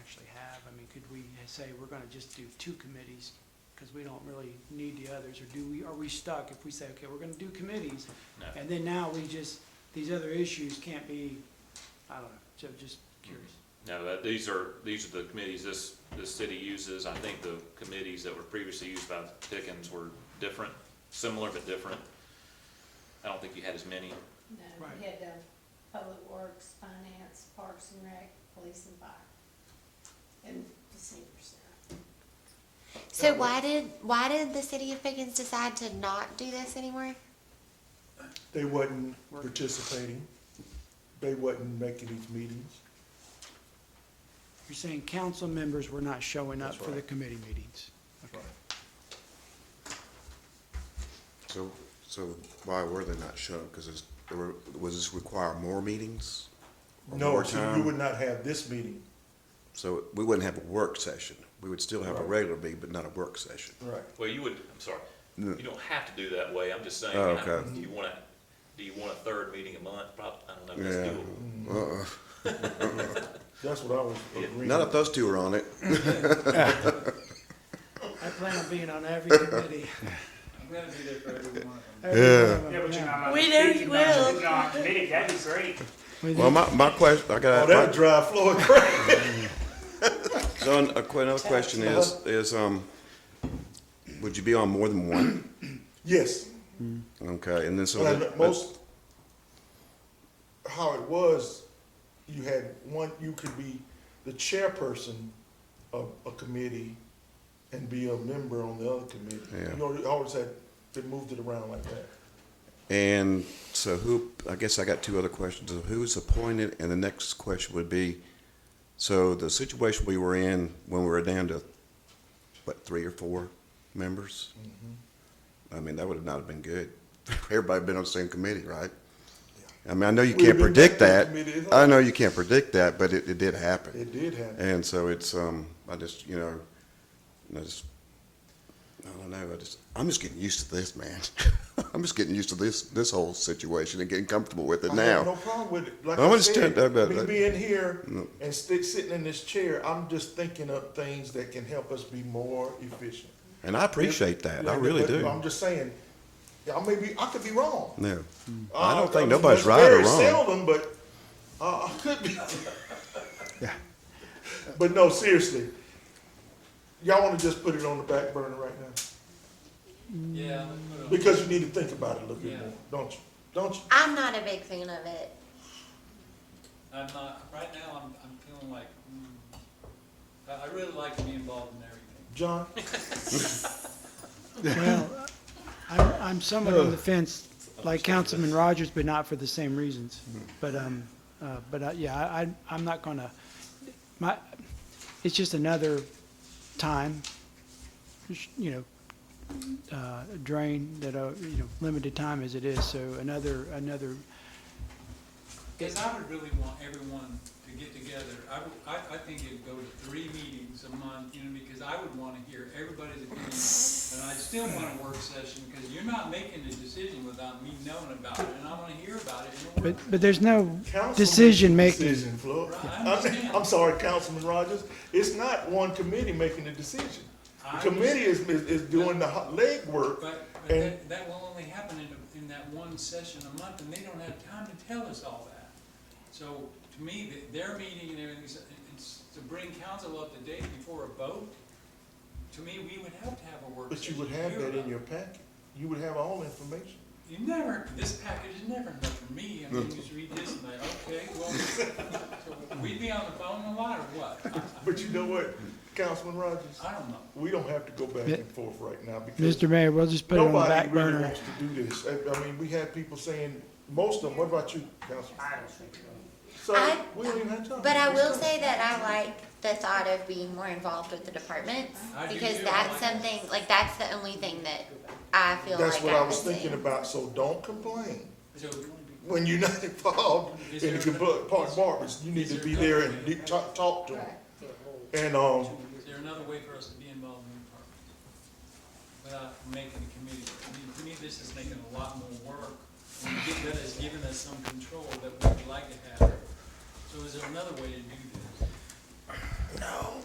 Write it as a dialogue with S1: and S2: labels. S1: have? I mean, could we say we're gonna just do two committees? Cause we don't really need the others, or do we, are we stuck if we say, okay, we're gonna do committees?
S2: No.
S1: And then now we just, these other issues can't be, I don't know, so just curious.
S2: No, that, these are, these are the committees this, this city uses. I think the committees that were previously used by Pickens were different, similar but different. I don't think you had as many.
S3: No,
S1: Right.
S3: we had the Public Works, Finance, Parks and Rec, Police and Fire. And the senior center.
S4: So why did, why did the city of Pickens decide to not do this anymore?
S5: They wasn't
S1: Work.
S5: participating. They wasn't making these meetings.
S1: You're saying council members were not showing up
S5: That's
S1: for the
S5: right.
S1: committee meetings? Okay.
S6: So, so why were they not shut up? Because it's, there were, was this require more meetings? Or
S5: No,
S6: more
S5: so you
S6: time?
S5: would not have this meeting.
S6: So we wouldn't have a work session. We would still have a
S5: Right.
S6: regular meeting, but not a work session.
S5: Right.
S2: Well, you would, I'm sorry,
S6: No.
S2: you don't have to do that way. I'm just saying,
S6: Oh,
S2: I-
S6: okay.
S2: do you want to, do you want a third meeting a month? Probably, I don't know if that's
S6: Yeah.
S2: doable.
S6: Uh-uh.
S5: That's what I was agreeing.
S6: Not if those two are on it.
S1: I plan on being on every committee.
S7: I'm gonna be there for every one of them.
S1: every one of them,
S7: Yeah, but you're not.
S3: We know you will.
S7: You're not committed, that'd be great.
S1: With
S6: Well,
S1: you.
S6: my, my question, I
S5: Oh,
S6: got,
S5: that would
S6: my-
S5: drive Floyd crazy.
S6: so an- a que- another question is, is, um, would you be on more than one?
S5: Yes,
S6: Okay, and then so.
S5: but I
S6: the-
S5: know most, how it was, you had one, you could be the chairperson of a committee and be a member on the other committee.
S6: Yeah.
S5: You know, you always had, they moved it around like that.
S6: And so who, I guess I got two other questions. Who is appointed? And the next question would be, so the situation we were in when we were down to, what, three or four members? I mean, that would have not have been good. Everybody been on the same committee, right? I mean, I know you
S5: We've
S6: can't
S5: been
S6: predict that.
S5: back to committee.
S6: I know you can't predict that, but it, it did happen.
S5: It did happen.
S6: And so it's, um, I just, you know, I just, I don't know, I just, I'm just getting used to this, man. I'm just getting used to this, this whole situation and getting comfortable with it
S5: I have no
S6: now.
S5: problem with it. Like
S6: I
S5: I
S6: understand
S5: said,
S6: that, but-
S5: me being here
S6: No.
S5: and stick sitting in this chair, I'm just thinking up things that can help us be more efficient.
S6: And I appreciate that, I
S5: Like,
S6: really
S5: but I'm
S6: do.
S5: just saying, yeah, I may be, I could be wrong.
S6: No, I don't
S5: Uh,
S6: think
S5: it's-
S6: nobody's
S5: it's
S6: right or
S5: very
S6: wrong.
S5: Seldom, but uh, I could be. But no, seriously, y'all want to just put it on the back burner right now
S7: Yeah. let's put it
S5: because you need to think about it a little bit
S7: Yeah.
S5: more, don't you? Don't you?
S4: I'm not a big fan of it.
S7: on. I'm not, right now, I'm, I'm feeling like, mm, I, I really like to be involved in everything.
S5: John,
S1: Well, I'm, I'm somewhat on the fence, like Councilman Rogers, but not for the same reasons. But, um, uh, but, uh, yeah, I, I- I'm not gonna, my, it's just another time, you know, uh, drain that, uh, you know, limited time as it is, so another, another,
S7: Cause I would really want everyone to get together, I, would- I, I think it'd go to three meetings a month, you know, because I would wanna hear everybody's opinion. And I still want a work session, cause you're not making the decision without me knowing about it, and I wanna hear about it in a
S1: but,
S7: work.
S1: but there's no
S5: Councilman-
S1: decision making.
S5: Decision, Floyd.
S7: Right, I
S5: I'm,
S7: understand.
S5: I'm sorry, Councilman Rogers. It's not one committee making the decision.
S7: I
S5: The committee is, is, is doing the ho- legwork.
S7: But, but
S5: And-
S7: that, that will only happen in, in that one session a month, and they don't have time to tell us all that. So, to me, th- their meeting and everything, is- it's to bring council up to date before a vote, to me, we would have to have a work
S5: But you
S7: session.
S5: would have
S7: here
S5: that in
S7: about-
S5: your packet. You would have all information.
S7: You never, this package is never enough for me, I mean, you just read this and like, okay, well, so we'd be on the phone a lot or what? I-
S5: But you know what, Councilman Rogers,
S7: I I don't know.
S5: we don't have to go back and forth right now because
S1: Mr. Mayor, we'll just put it on the
S5: nobody
S1: back
S5: really
S1: burner.
S5: wants to do this. I, I mean, we had people saying, most of them, what about you, Councilman?
S3: I don't think so.
S5: So,
S4: I-
S5: we don't even have time.
S4: But I will say that I like the thought of being more involved with the departments
S7: I do
S4: because
S7: too.
S4: that's something, like, that's the only thing that I feel like
S5: That's what I
S4: I'm
S5: was thinking
S4: missing.
S5: about, so don't complain.
S7: So,
S5: When you're not involved
S7: Is
S5: in the
S7: there-
S5: compl- park barbers, you need
S7: is
S5: to
S7: there
S5: be there and
S7: another-
S5: de- talk, talk to them. And, um,
S7: Is there another way for us to be involved in the department? Without making a committee, I mean, to me, this is making a lot more work. And we get- that has given us some control that we would like to have. So is there another way to do this?